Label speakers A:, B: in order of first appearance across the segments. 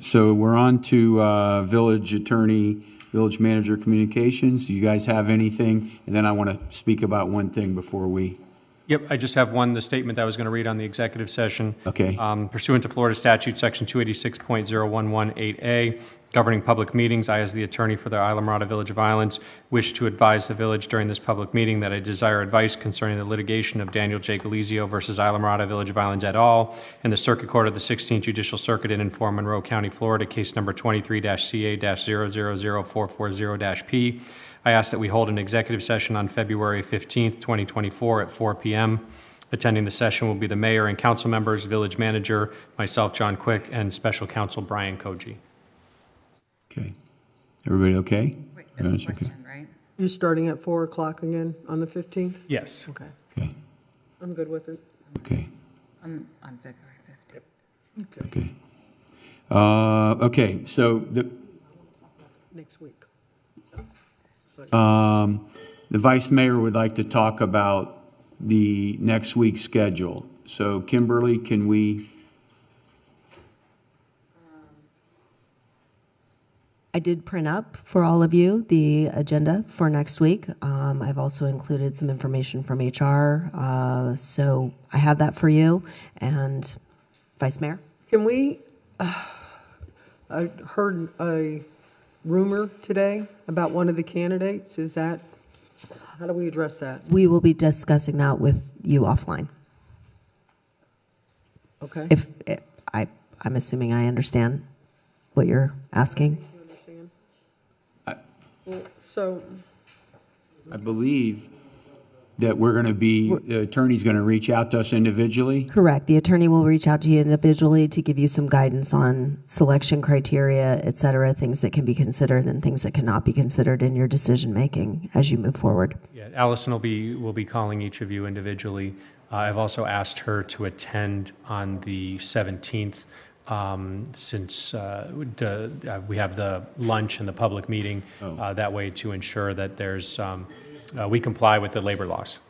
A: So we're on to uh, village attorney, village manager communications. Do you guys have anything? And then I want to speak about one thing before we,
B: Yep, I just have one, the statement that I was going to read on the executive session.
A: Okay.
C: Uh,
B: Um, Pursuant to Florida statute, section 286.0118A, governing public meetings, I, as the attorney for the Isla Mirada Village of Islands, wish to advise the village during this public meeting that I desire advice concerning the litigation of Daniel J. Galizio versus Isla Mirada Village of Islands et al. in the Circuit Court of the 16th Judicial Circuit in and for Monroe County, Florida, case number 23-CA-000440-P. I ask that we hold an executive session on February 15th, 2024 at 4 PM. Attending the session will be the mayor and council members, village manager, myself, John Quick, and special counsel Brian Koji.
A: okay. Everybody okay?
C: Wait,
A: Everyone's
C: that's a
A: okay?
C: question, right?
D: You're starting at 4 o'clock again on the 15th?
B: Yes.
D: Okay,
A: Okay,
D: I'm good with it.
A: okay.
C: On, on February 15th.
A: Okay. Uh, Okay, so the,
D: Next week.
A: um, the vice mayor would like to talk about the next week's schedule. So Kimberly, can we,
E: I did print up for all of you the agenda for next week. Um, I've also included some information from HR, uh, so I have that for you. And Vice Mayor?
D: Can we, uh, I heard a rumor today about one of the candidates. Is that, how do we address that?
E: We will be discussing that with you offline.
D: Okay?
E: If, if I, I'm assuming I understand what you're asking.
D: Well, So,
A: I believe that we're going to be, the attorney's going to reach out to us individually?
E: Correct. The attorney will reach out to you individually to give you some guidance on selection criteria, et cetera, things that can be considered and things that cannot be considered in your decision-making as you move forward.
B: Yeah, Allison will be, will be calling each of you individually. Uh, I've also asked her to attend on the 17th, um, since uh, the- uh, we have the lunch and the public meeting, uh, that way to ensure that there's, um, uh, we comply with the labor laws.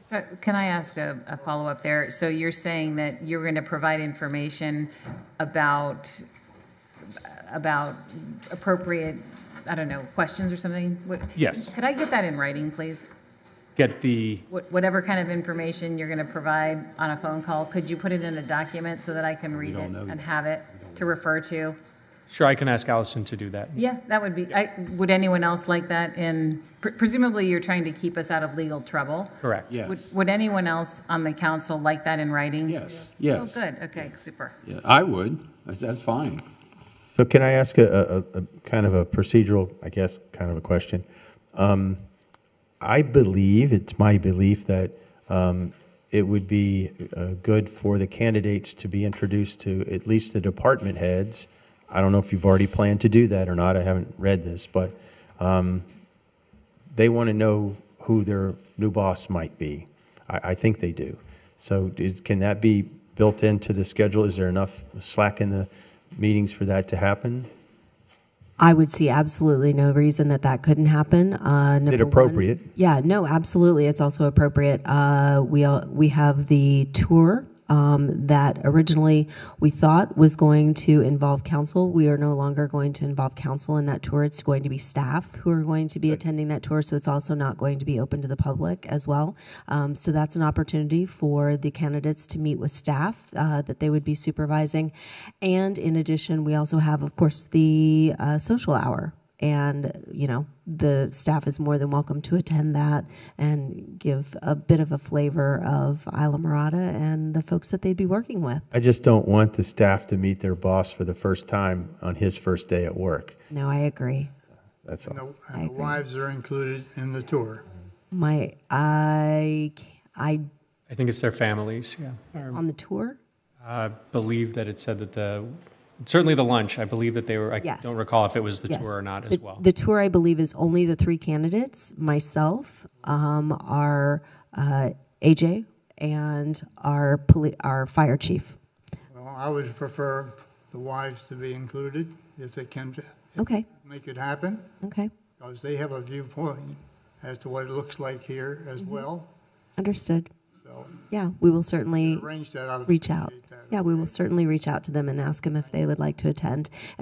C: So can I ask a, a follow-up there? So you're saying that you're going to provide information about, about appropriate, I don't know, questions or something? What-
B: Yes.
C: Could I get that in writing, please?
B: Get the,
C: What- Whatever kind of information you're going to provide on a phone call, could you put it in a document so that I can read it and have it to refer to?
B: sure, I can ask Allison to do that.
C: Yeah, that would be, I, would anyone else like that in, pre- presumably you're trying to keep us out of legal trouble?
B: Correct.
A: Yeah.
C: Would,
A: Yes.
C: would anyone else on the council like that in writing?
A: Yes,
C: Oh,
A: yes.
C: good, okay, super.
A: Yeah, I would. That's, that's fine.
F: So can I ask a, a, a kind of a procedural, I guess, kind of a question? Um, I believe, it's my belief that um, it would be uh, good for the candidates to be introduced to at least the department heads. I don't know if you've already planned to do that or not, I haven't read this, but um, they want to know who their new boss might be. I, I think they do. So is, can that be built into the schedule? Is there enough slack in the meetings for that to happen?
E: I would see absolutely no reason that that couldn't happen. Uh, number one-
F: appropriate?
E: yeah, no, absolutely. It's also appropriate. Uh, we all, we have the tour um, that originally we thought was going to involve council. We are no longer going to involve council in that tour. It's going to be staff who are going to be attending that tour. So it's also not going to be open to the public as well. Um, so that's an opportunity for the candidates to meet with staff uh, that they would be supervising, and in addition, we also have, of course, the uh, social hour and you know the staff is more than welcome to attend that and give a bit of a flavor of Isla Mirada and the folks that they'd be working with.
F: I just don't want the staff to meet their boss for the first time on his first day at work.
E: No, I agree.
F: That's all.
G: And the- and the wives are included in the tour.
E: My I ca- I
B: I think it's their families, yeah. Or-
E: on the tour.
B: I believe that it said that the, certainly the lunch, I believe that they were, I
E: Yes.
B: don't recall if it was the
E: Yes.
B: tour or not as
E: The-
B: well.
E: The tour, I believe, is only the three candidates. Myself, um, our uh, AJ, and our poli- our fire chief.
G: Well, I would prefer the wives to be included if they can
E: Okay.
G: make it happen,
E: Okay.
G: because they have a viewpoint as to what it looks like here as
E: Mm-hmm.
G: well.
E: Understood.
G: So
E: Yeah, we will certainly
G: arrange that. I would
E: reach out.
G: appreciate that.
E: Yeah, we will certainly reach out to them and ask them if they would like to attend.